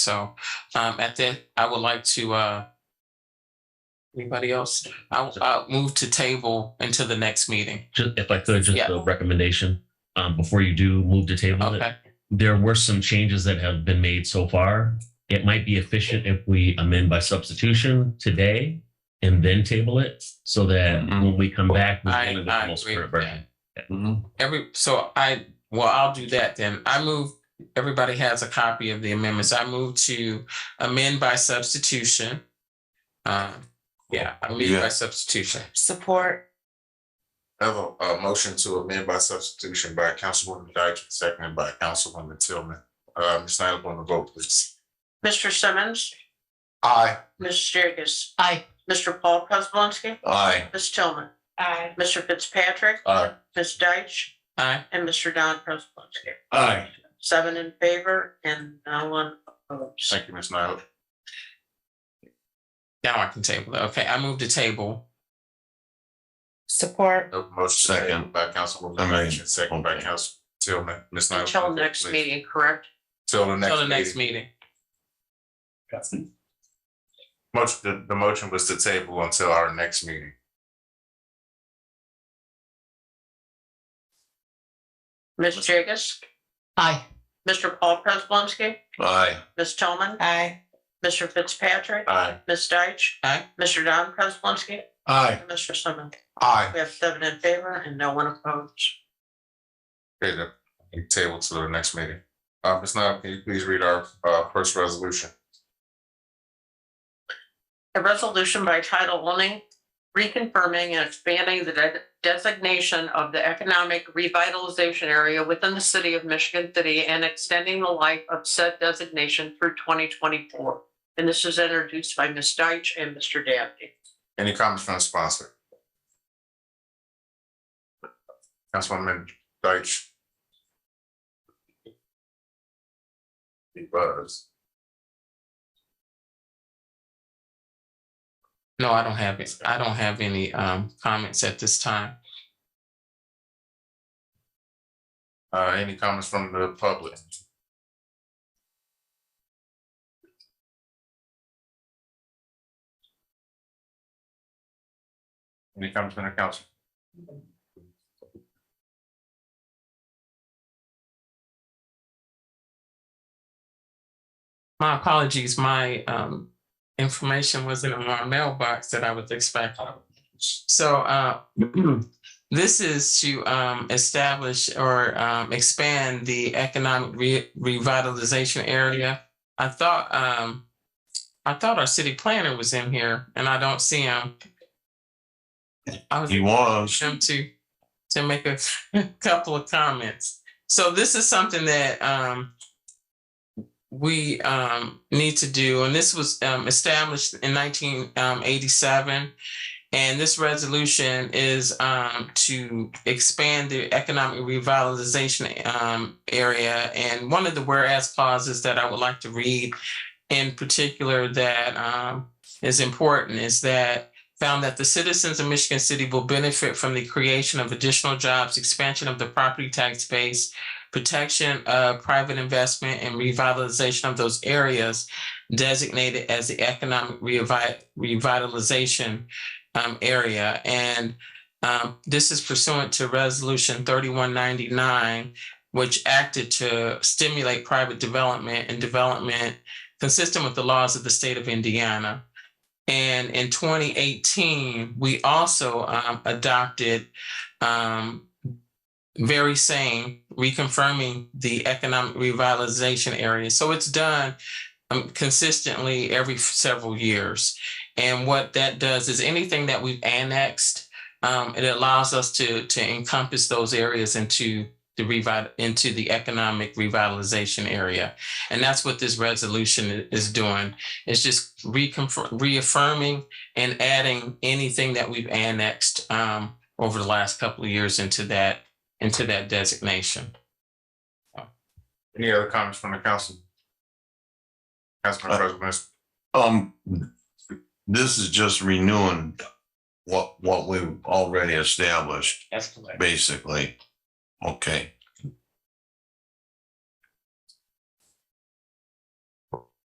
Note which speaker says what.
Speaker 1: So um at that, I would like to uh anybody else? I I'll move to table until the next meeting.
Speaker 2: Just, if I could, just
Speaker 1: Yeah.
Speaker 2: a recommendation, um, before you do move to table it.
Speaker 1: Okay,
Speaker 2: There were some changes that have been made so far. It might be efficient if we amend by substitution today and then table it so that
Speaker 3: Mhm.
Speaker 2: when we come back. we're
Speaker 1: Mm-hmm. I-
Speaker 2: dealing with
Speaker 1: I
Speaker 2: the most
Speaker 1: agree
Speaker 2: current
Speaker 1: with
Speaker 2: version.
Speaker 3: Mhm.
Speaker 1: every, so I, well, I'll do that then. I move, everybody has a copy of the amendments. I move to amend by substitution. Um, yeah, amend by
Speaker 3: Yeah.
Speaker 1: substitution.
Speaker 4: Support,
Speaker 3: I Have a, a motion to amend by substitution by Councilwoman Deitch, seconded by Councilwoman Tillman. Uh, Ms. Snyder, on the vote, please.
Speaker 5: Mr. Simmons,
Speaker 3: Aye.
Speaker 5: Ms. Jacobs. Aye. Mr. Paul Prisbalinski,
Speaker 3: Aye.
Speaker 5: Ms. Tillman,
Speaker 4: aye,
Speaker 5: Mr. Fitzpatrick,
Speaker 3: Aye.
Speaker 5: Ms. Deitch,
Speaker 1: Aye,
Speaker 5: and Mr. Don Prisbalinski.
Speaker 3: Aye.
Speaker 5: Seven in favor and no one opposed.
Speaker 3: Thank you, Ms. Snyder.
Speaker 1: now I can table it. Okay, I move to table.
Speaker 4: support,
Speaker 3: A motion to table by Councilwoman Deitch, seconded by
Speaker 2: Okay.
Speaker 3: Council Tillman. Ms. Snyder.
Speaker 5: Until next meeting, correct?
Speaker 3: Till the
Speaker 1: Till the
Speaker 3: next
Speaker 1: next
Speaker 3: meeting.
Speaker 1: meeting.
Speaker 3: Motion, the, the motion was to table until our next meeting.
Speaker 5: Ms. Jacobs. Aye. Mr. Paul Prisbalinski,
Speaker 3: Aye.
Speaker 5: Ms. Tillman,
Speaker 4: aye,
Speaker 5: Mr. Fitzpatrick,
Speaker 3: Aye.
Speaker 5: Ms. Deitch.
Speaker 1: Aye.
Speaker 5: Mr. Don Prisbalinski,
Speaker 3: Aye.
Speaker 5: and Mr. Simmons.
Speaker 3: Aye.
Speaker 5: We have seven in favor and no one opposed.
Speaker 3: Okay, then, we table to the next meeting. Uh, Ms. Snyder, can you please read our, uh, first resolution?
Speaker 5: A resolution by title only reconfirming and expanding the de- designation of the economic revitalization area within the city of Michigan City and extending the life of said designation through twenty twenty-four. And this is introduced by Ms. Deitch and Mr. Dabney.
Speaker 3: Any comments from the sponsor? Councilwoman Deitch. He buzzed.
Speaker 1: No, I don't have it. I don't have any um comments at this time.
Speaker 3: Uh, any comments from the public? Any comments from the council?
Speaker 1: My apologies, my um information wasn't in my mailbox that I was expecting. So uh this is to um establish or um expand the economic re- revitalization area. I thought um I thought our city planner was in here and I don't see him. I was
Speaker 3: He was.
Speaker 1: him to to make a couple of comments. So this is something that um we um need to do, and this was um established in nineteen um, eighty-seven. And this resolution is um to expand the economic revitalization um area. And one of the whereas clauses that I would like to read in particular that um is important is that found that the citizens of Michigan City will benefit from the creation of additional jobs, expansion of the property tax base, protection of private investment, and revitalization of those areas designated as the economic revi- revitalization um, area. And um, this is pursuant to Resolution 3199, which acted to stimulate private development and development consistent with the laws of the state of Indiana. And in 2018, we also um, adopted um, very same reconfirming the economic revitalization area. So it's done um, consistently every several years. And what that does is anything that we've annexed, um, it allows us to to encompass those areas into the revi- into the economic revitalization area. And that's what this resolution i- is doing. It's just reconfirm, reaffirming and adding anything that we've annexed um over the last couple of years into that, into that designation.
Speaker 3: Any other comments from the council? Councilman
Speaker 6: Uh,
Speaker 3: President,
Speaker 6: Um, this is just renewing what, what we've already established,
Speaker 1: That's correct.
Speaker 6: basically. Okay,